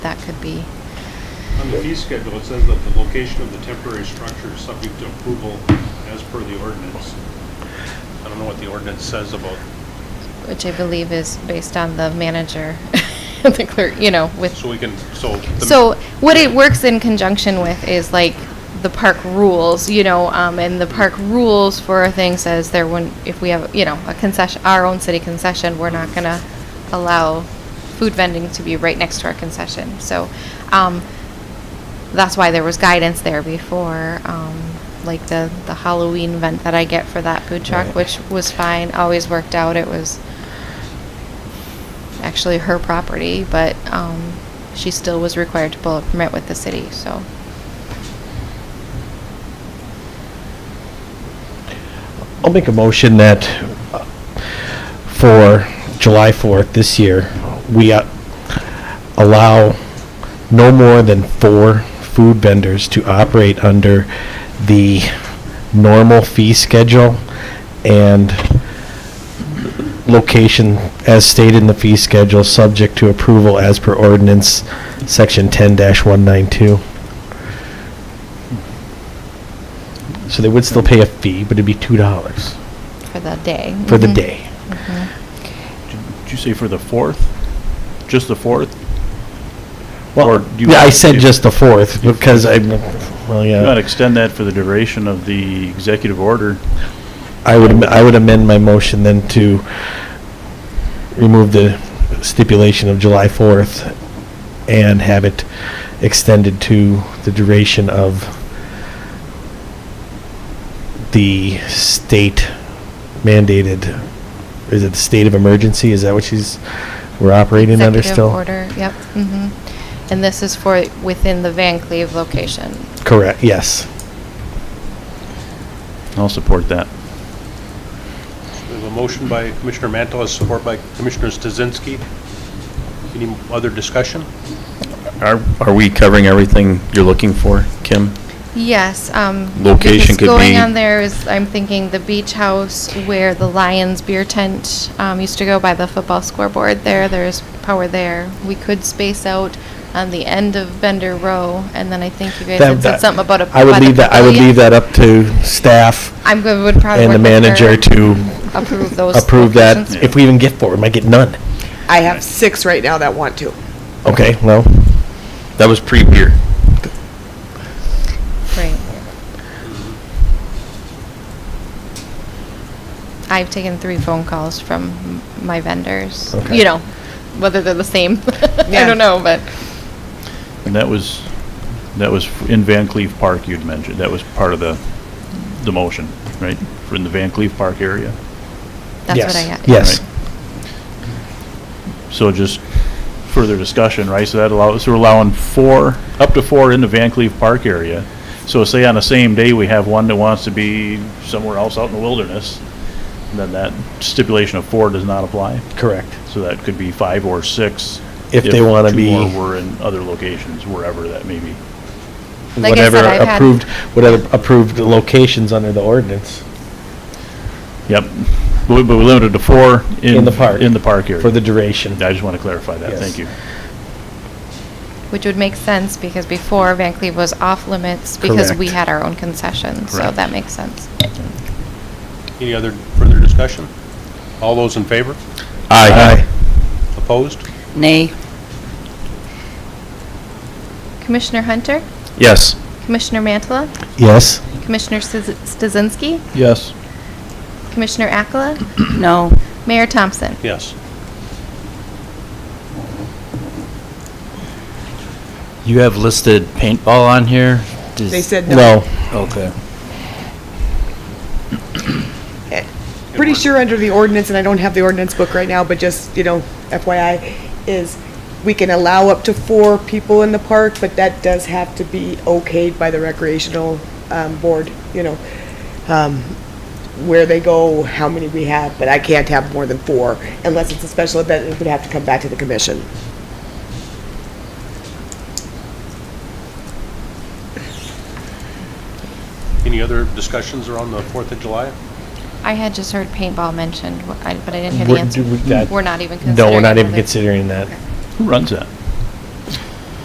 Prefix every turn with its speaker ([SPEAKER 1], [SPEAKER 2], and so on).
[SPEAKER 1] that could be,
[SPEAKER 2] On the fee schedule, it says that the location of the temporary structure is subject to approval as per the ordinance. I don't know what the ordinance says about,
[SPEAKER 1] which I believe is based on the manager, the clerk, you know, with.
[SPEAKER 2] so we can, so. the-
[SPEAKER 1] So what it works in conjunction with is like the park rules, you know, um, and the park rules for a thing says there wouldn't, if we have, you know, a concession, our own city concession, we're not gonna allow food vending to be right next to our concession. So, um, that's why there was guidance there before, um, like the, the Halloween event that I get for that food truck,
[SPEAKER 3] Right.
[SPEAKER 1] which was fine, always worked out. It was actually her property, but, um, she still was required to pull a permit with the city, so.
[SPEAKER 3] I'll make a motion that uh, for July 4th this year, we uh, allow no more than four food vendors to operate under the normal fee schedule and location as stated in the fee schedule, subject to approval as per ordinance, section 10-192. So they would still pay a fee, but it'd be $2
[SPEAKER 1] For the day.
[SPEAKER 3] for the
[SPEAKER 1] Mhm.
[SPEAKER 3] day.
[SPEAKER 1] Mhm.
[SPEAKER 4] Did you say for the fourth? Just the fourth? Or
[SPEAKER 3] Well,
[SPEAKER 4] do you
[SPEAKER 3] yeah, I
[SPEAKER 4] want-
[SPEAKER 3] said
[SPEAKER 4] if-
[SPEAKER 3] just the fourth because I, well,
[SPEAKER 4] You want to
[SPEAKER 3] yeah.
[SPEAKER 4] extend that for the duration of the executive order?
[SPEAKER 3] I would, am- I would amend my motion then to remove the stipulation of July fourth and have it extended to the duration of the state mandated, is it the state of emergency? Is that what she's, we're operating under
[SPEAKER 1] Executive
[SPEAKER 3] still?
[SPEAKER 1] order, yep, mhm. And this is for within the Van Cleve location.
[SPEAKER 3] Correct, yes.
[SPEAKER 4] I'll support that.
[SPEAKER 2] We have a motion by Commissioner Mantel, as support by Commissioner Stasinski. Any other discussion?
[SPEAKER 5] Are, are we covering everything you're looking for, Kim?
[SPEAKER 1] Yes, um.
[SPEAKER 5] Location
[SPEAKER 1] because
[SPEAKER 5] could
[SPEAKER 1] Going
[SPEAKER 5] be-
[SPEAKER 1] on there is, I'm thinking the beach house where the Lions beer tent, um, used to go by the football scoreboard there, there's power there. We could space out on the end of Bender Row, and then I think you guys
[SPEAKER 3] That-
[SPEAKER 1] had said
[SPEAKER 3] that-
[SPEAKER 1] something about a. by
[SPEAKER 3] I would
[SPEAKER 1] the
[SPEAKER 3] leave that, I would
[SPEAKER 1] pavilion.
[SPEAKER 3] leave that up to staff
[SPEAKER 1] I'm good, would probably.
[SPEAKER 3] and the
[SPEAKER 1] work with her,
[SPEAKER 3] manager to
[SPEAKER 1] Approve those.
[SPEAKER 3] approve that.
[SPEAKER 1] locations.
[SPEAKER 3] If we even get four, we might get none.
[SPEAKER 6] I have six right now that want to.
[SPEAKER 3] Okay, well,
[SPEAKER 5] That was pre-beer.
[SPEAKER 1] Right. I've taken three phone calls from m- my vendors,
[SPEAKER 3] Okay.
[SPEAKER 1] you know, whether they're the same, I
[SPEAKER 6] Yeah.
[SPEAKER 1] don't know, but,
[SPEAKER 4] And that was, that was in Van Cleve Park you'd mentioned. That was part of the, the motion, right? For in the Van Cleve Park area.
[SPEAKER 1] That's
[SPEAKER 3] yes,
[SPEAKER 1] what I got.
[SPEAKER 3] Yes.
[SPEAKER 4] Right. So just further discussion, right? So that allows, so we're allowing four, up to four in the Van Cleve Park area. So say on the same day, we have one that wants to be somewhere else out in the wilderness, then that stipulation of four does not apply.
[SPEAKER 3] Correct.
[SPEAKER 4] So that could be five or six.
[SPEAKER 3] If they wanna be-
[SPEAKER 4] Two more were in other locations, wherever that may be.
[SPEAKER 1] Like I
[SPEAKER 3] Whatever
[SPEAKER 1] said, I've had-
[SPEAKER 3] approved, whatever approved locations under the ordinance
[SPEAKER 4] Yep. But we- but we're limited to four in.
[SPEAKER 3] In the park.
[SPEAKER 4] In the park area.
[SPEAKER 3] for the duration.
[SPEAKER 4] I just want to clarify that.
[SPEAKER 3] Yes.
[SPEAKER 4] Thank you.
[SPEAKER 1] Which would make sense because before Van Cleve was off limits because we
[SPEAKER 3] Correct.
[SPEAKER 1] had our own concession, so
[SPEAKER 4] Correct.
[SPEAKER 1] that makes sense.
[SPEAKER 2] Any other further discussion? All those in favor?
[SPEAKER 3] Aye.
[SPEAKER 2] Opposed?
[SPEAKER 7] Nay.
[SPEAKER 1] Commissioner Hunter,
[SPEAKER 5] Yes.
[SPEAKER 1] Commissioner Mantala,
[SPEAKER 3] Yes,
[SPEAKER 1] Commissioner Stas- Stasinski,
[SPEAKER 4] Yes.
[SPEAKER 1] Commissioner Akala,
[SPEAKER 7] No.
[SPEAKER 1] Mayor Thompson.
[SPEAKER 2] Yes.
[SPEAKER 8] You have listed paintball on here? Does-
[SPEAKER 6] They said no.
[SPEAKER 3] no,
[SPEAKER 8] Okay.
[SPEAKER 6] Pretty sure under the ordinance, and I don't have the ordinance book right now, but just, you know, FYI, is we can allow up to four people in the park, but that does have to be okayed by the recreational um, board, you know, um, where they go, how many we have, but I can't have more than four unless it's a special event, it would have to come back to the commission.
[SPEAKER 2] Any other discussions around the Fourth of July?
[SPEAKER 1] I had just heard paintball mentioned, wh- I- but I didn't hear the
[SPEAKER 3] We're- do we-
[SPEAKER 1] answer.
[SPEAKER 3] that-
[SPEAKER 1] We're not even considering.
[SPEAKER 3] no, we're not even
[SPEAKER 1] whether-
[SPEAKER 3] considering that.
[SPEAKER 4] Who runs that?